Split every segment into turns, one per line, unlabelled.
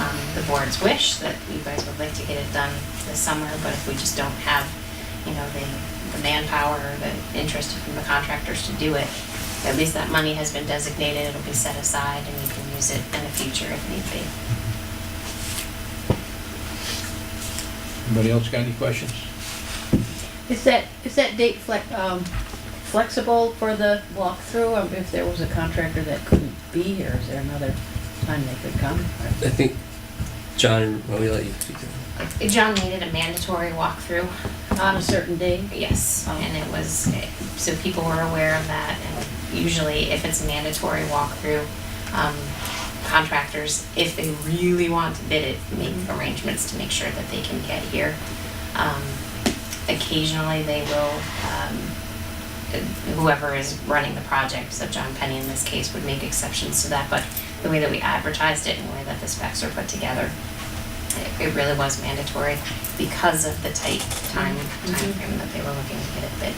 um, board's wish that you guys would like to get it done this summer, but if we just don't have, you know, the, the manpower or the interest from the contractors to do it, at least that money has been designated, it'll be set aside and you can use it in the future if need be.
Anybody else got any questions?
Is that, is that date flex, um, flexible for the walkthrough? Um, If there was a contractor that couldn't be here, is there another time they could come?
I think, John, well, we let you speak. to that.
John needed a mandatory walkthrough.
On a certain day?
Yes,
Oh.
and it was, so people were aware of that, and usually if it's a mandatory walkthrough, um, contractors, if they really want to bid it, make arrangements to make sure that they can get here. Um, Occasionally, they will, um, whoever is running the project, so John Penny in this case, would make exceptions to that, but the way that we advertised it and the way that the specs are put together, it- it really was mandatory because of the tight time,
Mm-hmm.
timeframe that they were looking to get it bid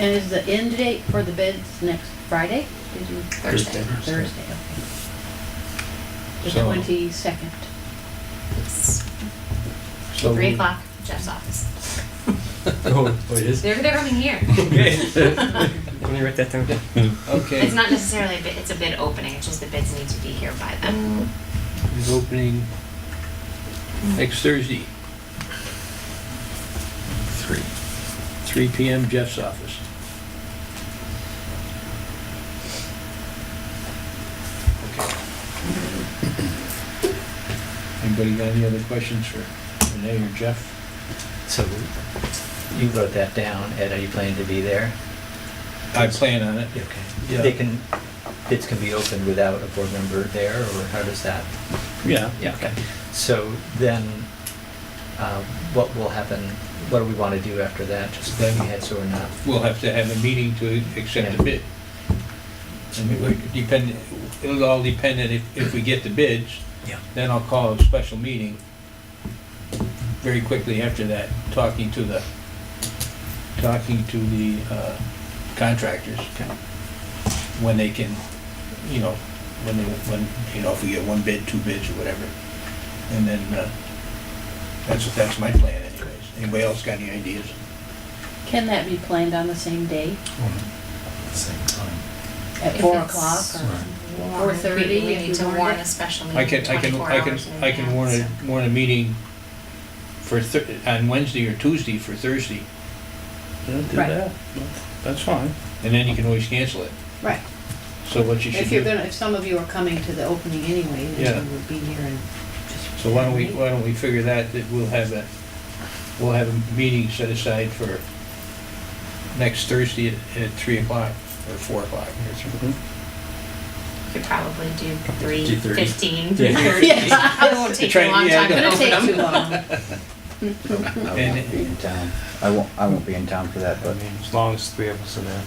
And is the end date for the bids next Friday? Did you-
Thursday,
Thursday, okay. The
So-
twenty-second.
It's
So
three
we-
o'clock, Jeff's office.
Oh, oh, it is?
They're, they're coming here.
Let me write that down.
Okay,
It's not necessarily a bid, it's a bid opening, it's just the bids need to be here by then.
it's opening
Mm-hmm.
next Thursday. Three. Three PM, Jeff's office. Anybody got any other questions for Renee or Jeff?
So you wrote that down, Ed, are you planning to be there?
I plan on it. Yeah.
Okay. They can, bids can be opened without a board member there, or how does that?
Yeah.
Yeah, okay. So then, uh, what will happen, what do we want to do after that? Just let me heads or not?
We'll have to have a meeting to accept the bid. I mean, we could depend, it'll all depend on if, if we get the bids.
Yeah.
Then I'll call a special meeting very quickly after that, talking to the, talking to the uh, contractors. When they can, you know, when they, when, you know, if we get one bid, two bids, or whatever. And then, uh, that's, that's my plan anyways. Anybody else got any ideas?
Can that be planned on the same day?
Same time.
At
If
four
it's
o'clock or?
Warned, we-
4:30
We
if
need
you
to
warned
warn
it.
a special
I
meeting
can, I can,
twenty-four
I can,
hours in
I can warn
advance,
a, warn a meeting for Thur, on Wednesday or Tuesday for Thursday,
Yeah, do
Right.
that. That's- That's fine.
and then you can always cancel it.
Right.
So what you should
If you're
do,
gonna, if some of you are coming to the opening anyway,
Yeah.
then you would be here and just.
so why don't we, why don't we figure that, that we'll have a, we'll have a meeting set aside for next Thursday at, at three o'clock, or four o'clock, or something.
Mm-hmm.
so Could probably do three
Do 30.
fifteen,
Yeah.
thirty. It won't take you a
Trying-
long
yeah, I
time to
know.
Gonna
open
take
them.
too long.
I won't be in town. I won't, I won't be in town for that,
I
but
mean, as long as three of us are there.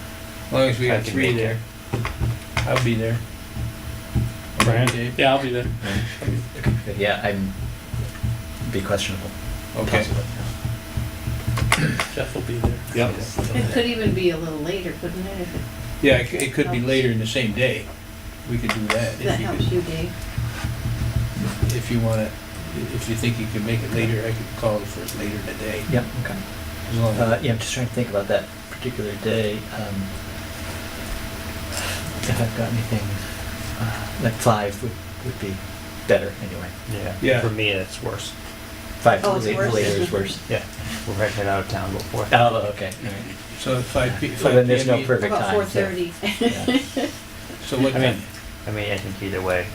As long as we
I
got
can
three
make it.
there. I'll be there. Okay.
Yeah, I'll be there.
But Yeah, I'm, be questionable.
Okay,
possibly.
Jeff will be there.
yep,
It could even be a little later, couldn't it, if it
yeah, it c- it could be later in the same day, we could do that. if
That
you
helps
could-
you, Dave.
If you want to, if you think you can make it later, I could call it for later in the day.
Yeah, okay.
As long as-
Uh, yeah, I'm just trying to think about that particular day. Um, if I've got anything, uh, like five would, would be better anyway.
Yeah.
Yeah, for me, it's worse.
Five
Oh, it's
la-
worse.
later is worse.
Yeah, we're right out of town before.
Oh, okay.
So at five P,
So
five
then there's no
PM,
perfect
About
time.
four
so-
thirty.
yeah,
so what
I mean,
time?
I mean, I think either way,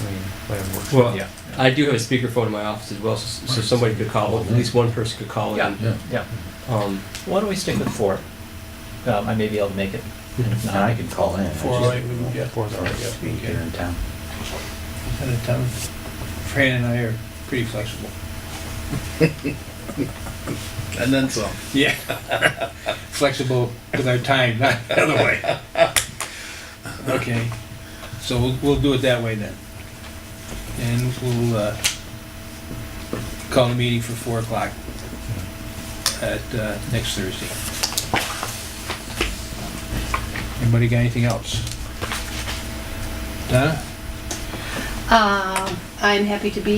I mean, whatever works.
Well,
Yeah.
I do have a speakerphone in my office as well, so, so somebody could call, at least one person could call
Yeah.
in.
yeah.
Yeah.
Um,
Why don't we stick with four? Um, I may be able to make it. And if not,
And I can call in. I
Four, all
just
right, we- yeah, four,
Four's
all right, yeah,
Be
okay.
here in town.
Out of town. Fran and I are pretty flexible.
And then some.
Yeah. Flexible with our time, not the other way. Okay, so we'll, we'll do it that way then. And we'll, uh, call a meeting for four o'clock at, uh, next Thursday. Anybody got anything else? Donna?
Um, I'm happy to be